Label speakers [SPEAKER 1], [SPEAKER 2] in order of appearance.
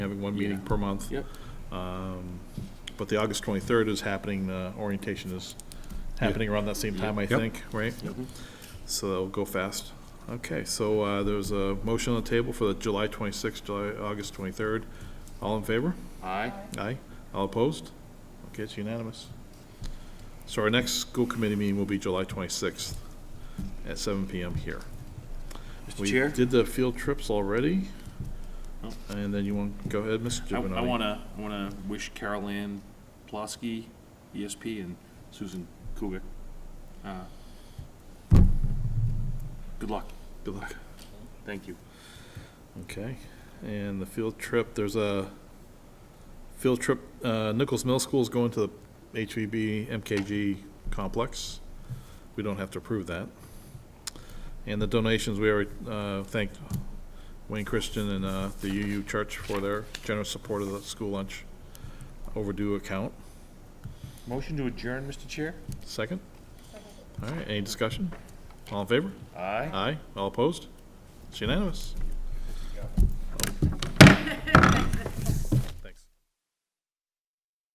[SPEAKER 1] one meeting
[SPEAKER 2] Yeah.
[SPEAKER 1] per month.
[SPEAKER 2] Yep.
[SPEAKER 1] Um, But the August 23rd is happening, uh, orientation is happening around that same time, I
[SPEAKER 3] Yep.
[SPEAKER 1] think, right?
[SPEAKER 2] Yep.
[SPEAKER 1] So that'll go fast. Okay, so uh, there's a motion on the table for the July 26th, July, August 23rd. All in favor?
[SPEAKER 2] Aye.
[SPEAKER 1] Aye. All opposed? Okay, it's unanimous. So our next school committee meeting will be July 26th at 7 PM here.
[SPEAKER 2] Mr.
[SPEAKER 1] We
[SPEAKER 2] Chair?
[SPEAKER 1] did the field trips already.
[SPEAKER 2] Oh.
[SPEAKER 1] And then you want, go ahead, Mr.
[SPEAKER 2] I
[SPEAKER 1] Givernati.
[SPEAKER 2] I wanna, I wanna wish Carol Ann Plosky, ESP, and Susan Kugel, uh, good luck.
[SPEAKER 1] Good luck.
[SPEAKER 2] Thank you.
[SPEAKER 1] Okay, and the field trip, there's a field trip, uh, Nichols Middle School is going to the E HVB MKG complex. We don't have to approve that. And the donations, we already, uh, thanked Wayne Christian and, uh, the UU Church for their generous support of the school lunch overdue account.
[SPEAKER 2] Motion to adjourn, Mr. Chair?
[SPEAKER 1] Second? All right, any discussion? All in favor?
[SPEAKER 2] Aye.
[SPEAKER 1] Aye. All opposed? It's unanimous.